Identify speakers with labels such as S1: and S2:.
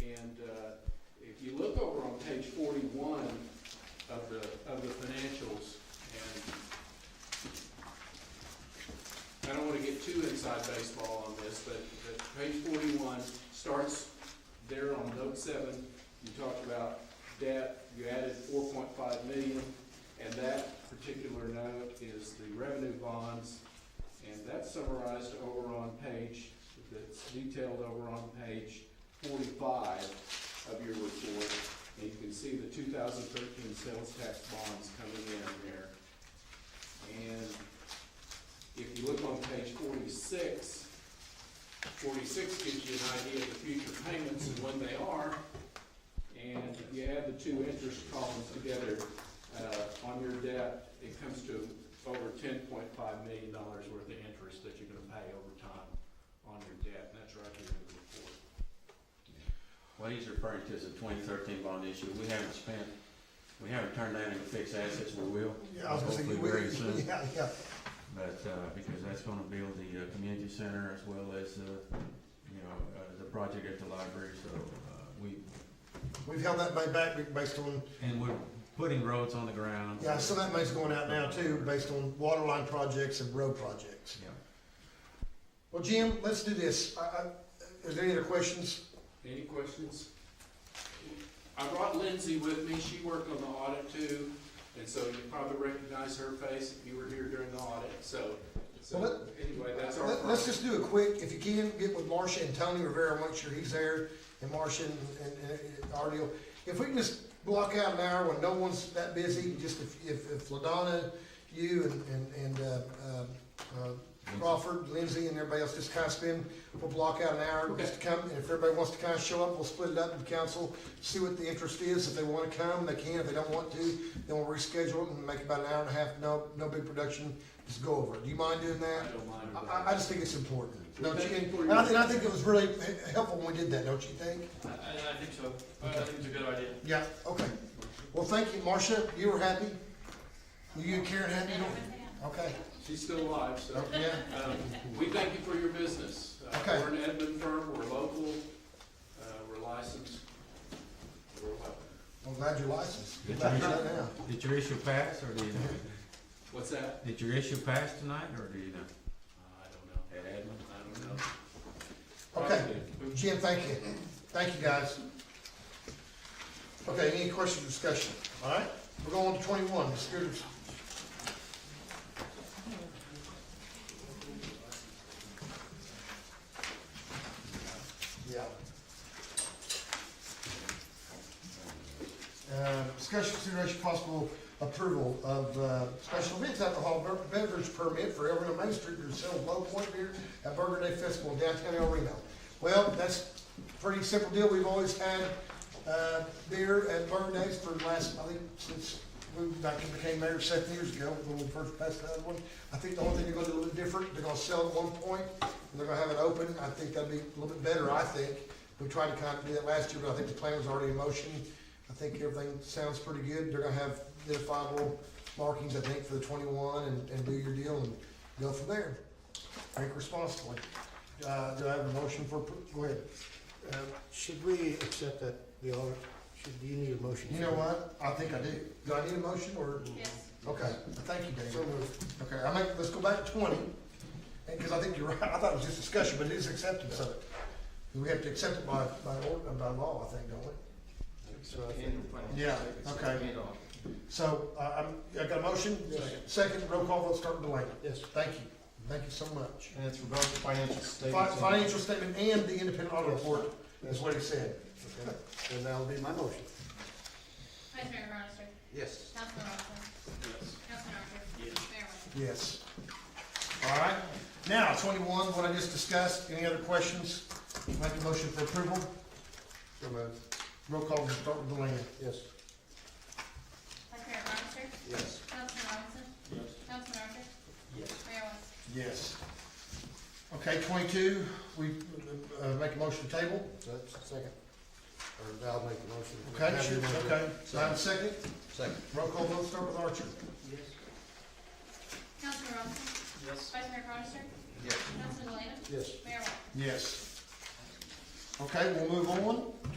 S1: And uh, if you look over on page forty-one of the, of the financials, and I don't want to get too inside baseball on this, but, but page forty-one starts there on note seven. You talked about debt, you added four point five million, and that particular note is the revenue bonds. And that's summarized over on page, that's detailed over on page forty-five of your report. And you can see the two thousand thirteen sales tax bonds coming in there. And if you look on page 46, 46 gives you an idea of the future payments and when they are. And if you add the two interest columns together, uh, on your debt, it comes to over ten point five million dollars worth of interest that you're gonna pay over time on your debt, and that's right here in the report.
S2: What he's referring to is a twenty thirteen bond issue. We haven't spent, we haven't turned down any fixed assets, we will,
S3: Yeah, I was gonna say,
S2: Hopefully
S3: we-
S2: very soon.
S3: yeah, yeah,
S2: but, uh, because that's gonna build the, uh, community center as well as, uh, you know, uh, the project at the library, so, uh, we,
S3: we've held that money back based on,
S2: and we're putting roads on the ground.
S3: yeah, some of that money's going out now too, based on water line projects and road projects.
S2: Yeah.
S3: Well, Jim, let's do this, I, I, is there any other questions?
S1: Any questions? I brought Lindsay with me, she worked on the audit too, and so you probably recognize her face if you were here during the audit, so,
S3: Well,
S1: so, anyway, that's our.
S3: Let, us just do a quick, if you can, get with Marcia and Tony Rivera, make sure he's there, and Marcia and, and, and our deal. If we can just block out an hour when no one's that busy, just if, if, if LaDonna, you and, and, and, uh, uh, Crawford, Lindsay, and everybody else just kind of spend, we'll block out an hour just to come, and if everybody wants to kind of show up, we'll split it up in council, see what the interest is, if they wanna come, they can, if they don't want to, then we'll reschedule it and make about an hour and a half, no, no big production, just go over it. Do you mind doing
S1: I
S3: that?
S1: don't mind.
S3: I-
S1: her.
S3: I, I just think it's important, don't you?
S1: Thank you for
S3: And I,
S1: your-
S3: and I think it was really h- helpful when we did that, don't you think?
S4: I, I I think so. I I think it's a good idea.
S3: Yeah. Okay. Well, thank you, Marcia. You were happy? Were you and Karen happy? You don't- Okay.
S1: She's still alive, so.
S3: Oh, Yeah.
S1: Um, We thank you for your business. Uh,
S3: Okay.
S1: We're an Edmund firm, we're local, uh, we're licensed, we're what?
S3: I'm glad you're licensed.
S2: Did
S3: Glad
S2: you-
S3: you're not now.
S2: Did your issue pass, or do you know?
S1: What's that?
S2: Did your issue pass tonight, or do you know?
S1: Uh, I don't know.
S2: At Edmund?
S1: I don't know.
S3: Okay.
S1: Probably.
S3: Jim, thank you. Thank you, guys. Okay, any questions, or discussion? All right, we're going to twenty-one, the scooters. Yeah. Uh, Discussion consideration possible approval of uh, special events alcohol beverage permit for Elreno Main Street to sell low point beer at Burger Day Festival in downtown El Reno. Well, that's a pretty simple deal. We've always had uh, beer at Burger Days for the last, I think, since we back when I became mayor seven years ago, when we first passed the other one. I think the only thing they're gonna do a little different, they're gonna sell at one point, and they're gonna have it open. I think that'd be a little bit better, I think. We tried to kind of do that last year, but I think the plan was already in motion. I think everything sounds pretty good. They're gonna have identifiable markings, I think, for the twenty-one and, and do your deal and go from there. Drink responsibly. Uh, do I have a motion for, appro- go ahead.
S5: Uh, Should we accept that the audit, should, do you need a motion?
S3: You know what? I think I do. Do I need a motion or?
S6: Yes.
S3: Okay, thank you,
S5: So
S3: David.
S5: moved.
S3: Okay, I make, let's go back to twenty, and, cause I think you're right, I thought it was just discussion, but it is acceptance of it. We have to accept it by, by ord, by law, I think, don't we?
S5: So I think-
S1: And-
S3: Yeah, okay. So, I, I'm, I got a motion?
S5: Yes.
S3: Second, roll call, let's start with Delaney.
S5: Yes.
S3: Thank you, thank you so much.
S5: And it's regarding financial
S3: Fi-
S5: statements.
S3: Financial statement and the independent audit report, is what he said.
S5: Okay, Then that'll be my motion.
S6: Vice Mayor Cronister.
S5: Yes.
S6: Councilman Robinson.
S1: Yes.
S6: Councilman Archer.
S1: Yes.
S6: Mayor White.
S3: Yes. All right, now twenty-one, what I just discussed, any other questions? Make a motion for approval?
S5: So moved.
S3: Roll call, start with Delaney.
S5: Yes.
S6: Vice Mayor Cronister.
S5: Yes.
S6: Councilman Robinson.
S5: Yes.
S6: Councilman Archer.
S5: Yes.
S6: Mayor White.
S3: Yes. Okay, twenty-two, we, uh, make a motion to table,
S5: That's second. Or I'll make the motion.
S3: okay,
S5: Have
S3: sure,
S5: your motion.
S3: okay, so I have a second,
S5: Second.
S3: roll call vote, start with Archer.
S5: Yes.
S6: Councilman Robinson.
S5: Yes.
S6: Vice Mayor Cronister.
S5: Yes.
S6: Councilman Delaney.
S5: Yes.
S6: Mayor White.
S3: Yes. Okay, we'll move on,